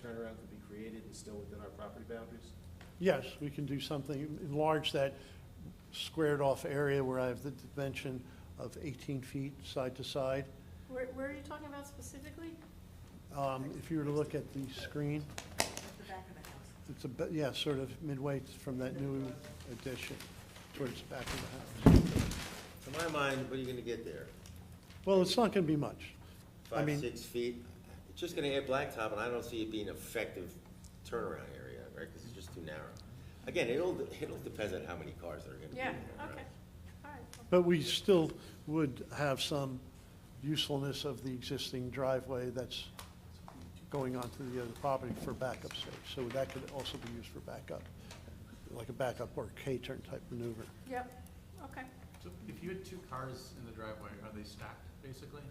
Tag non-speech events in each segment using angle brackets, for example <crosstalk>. turnaround could be created and still within our property boundaries? Yes, we can do something, enlarge that squared-off area where I have the dimension of 18 feet side to side. Where, where are you talking about specifically? Um, If you were to look at the screen, the back of the house. it's a, bit- yeah, sort of midway from that new addition towards the back of the house. To my mind, what are you gonna get there? Well, it's not going to be much. I Five, mean- six feet? It's just gonna add blacktop, and I don't see it being an effective turnaround area, right? Because it's just too narrow. Again, it all, it all depends on how many cars there are gonna be Yeah, in there, okay, right? all right. But we still would have some usefulness of the existing driveway that's going onto the other property for backup sake. So that could also be used for backup, like a backup or a K-turn type maneuver. Yep, okay. So if you had two cars in the driveway, are they stacked, basically?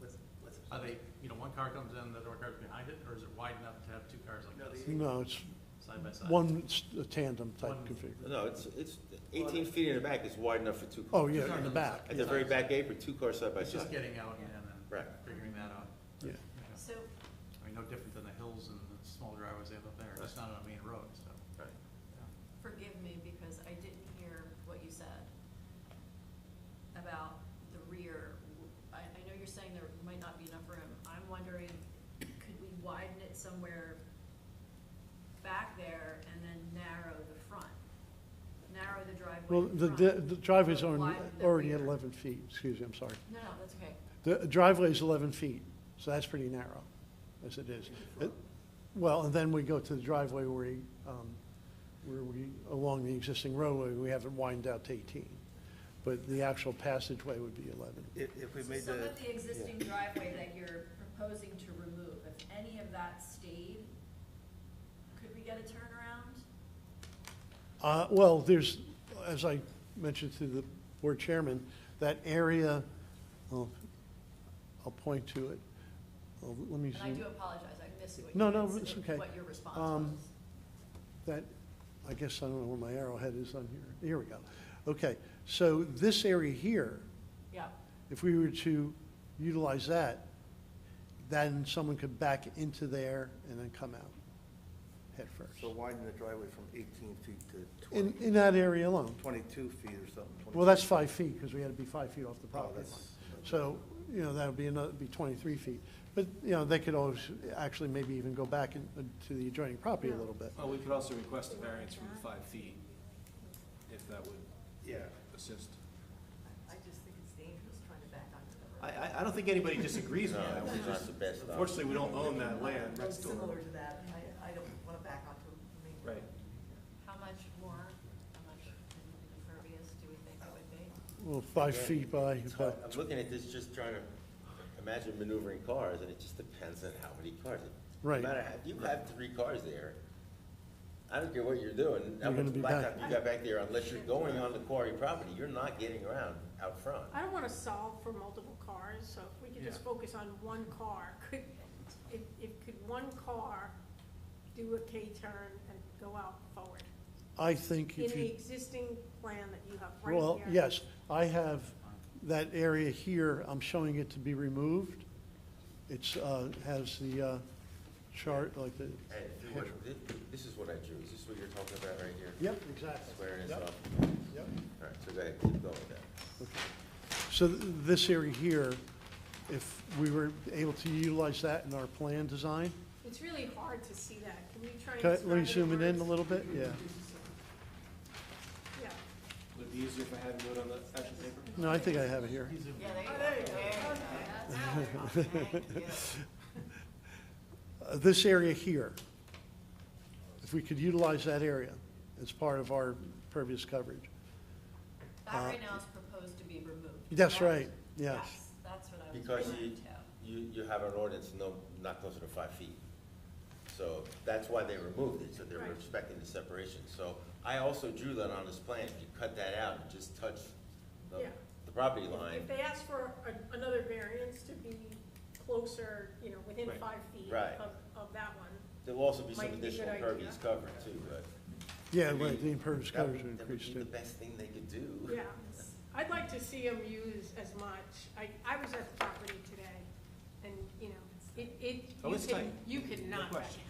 What's, what's, Are they, you know, one car comes in, the other car's behind it, or is it wide enough to have two cars No, like this, they- No, it's side by side? one s- a tandem type One- configuration. No, it's, it's, eighteen feet in the back is wide enough for two. Oh, cars. yeah, in the back, At the very back apron, two cars side by It's just side. getting out and then Right. figuring that out. yeah. you know. So, I mean, no different than the hills and the small driveways they have up there, it's not on a main road, so. Right. forgive me because I didn't hear what you said about the rear. I, I know you're saying there might not be enough room. I'm wondering, could we widen it somewhere back there and then narrow the front? Narrow the driveway Well, in the front, the- the driveway's but on- widen the already rear. at 11 feet, excuse me, I'm sorry. No, no, that's okay. The driveway is 11 feet, so that's pretty narrow, as it is. It- Well, and then we go to the driveway where we, um, where we, along the existing roadway, we have it widened out to 18. But the actual passageway would be 11. if, if we So made Some the, of the existing driveway that you're proposing to remove, if any of that stayed, could we get a turnaround? Uh, Well, there's, as I mentioned to the board chairman, that area, well, I'll point to it. Uh, Let me And I do zoom, apologize, I missed what you. No, no, had it's said, okay. What your response Um, was. that, I guess I don't know where my arrowhead is on here. Here we go. Okay, so this area here, Yeah, if we were to utilize that, then someone could back into there and then come out head so first. widen the driveway from eighteen feet to In, twenty, in that area alone. twenty-two feet or something. Well, 22 that's feet. five feet, because we had to be five feet off the Oh, property line. that's. So, you know, that would be another, be twenty-three feet. But, you know, they could always, actually maybe even go back in- uh, to the adjoining property a little bit. Well, we could also request a variance from the five feet, if that would Yeah, assist. I just think it's dangerous trying to back onto the I, I, I don't think anybody disagrees No, with that. We it's just- not the best option. Unfortunately, we don't own that land. That's still- Similar to that, I, I don't want to back onto a main Right. How much more, how much impervious do we think it would be? Well, five feet by, It's hard. but, I'm looking at this, just trying to imagine maneuvering cars, and it just depends on how many cars. Right. No matter, how- if you have three cars there, I don't care what you're doing, how You're gonna much be back. blacktop you got back there, unless you're going on the quarry property, you're not getting around out front. I don't want to solve for multiple cars, so if we could just Yeah. focus on one car, could, if, if, could one car do a K-turn and go out forward? I think In if the you, existing plan that you have right here? well, yes, I have that area here, I'm showing it to be removed. It's, uh, has the, uh, chart, like the. And if you would- thi- this is what I drew, is this what you're talking about right here? Yep, exactly. Square is Yep, up, yep. all right, so go ahead, keep going with that. So th- this area here, if we were able to utilize that in our plan design, It's really hard to see that, can we try and Can I- describe let me it zoom it in a words? little bit, yeah. Yeah. Would it be easier if I had it wrote on the actual paper? No, I think I have it here. Yeah, there you go. There you go. That's how we're <laughs> talking. Yeah. Uh, This area here, if we could utilize that area as part of our pervious coverage. That right now is proposed to be removed. Uh, That's correct? right, yes. That's what I was Because referring you, to. you, you have an ordinance, no, not closer than five feet. So that's why they removed it, so they're Right. respecting the separation. So I also drew that on this plan, you cut that out and just touch the, Yeah. the property line. If they ask for a- another variance to be closer, you know, within Right. five feet Right. of, of that one, There'll also be some Might be a good additional idea. impervious cover too, but. Yeah, I mean, right, the impervious that coverage would would- increase That would too. be the best thing they could do. Yeah, I'd like to see them use as much, I, I was at the property today, and, you know, it, it, Oh, you it's can, tight. you could No not back question.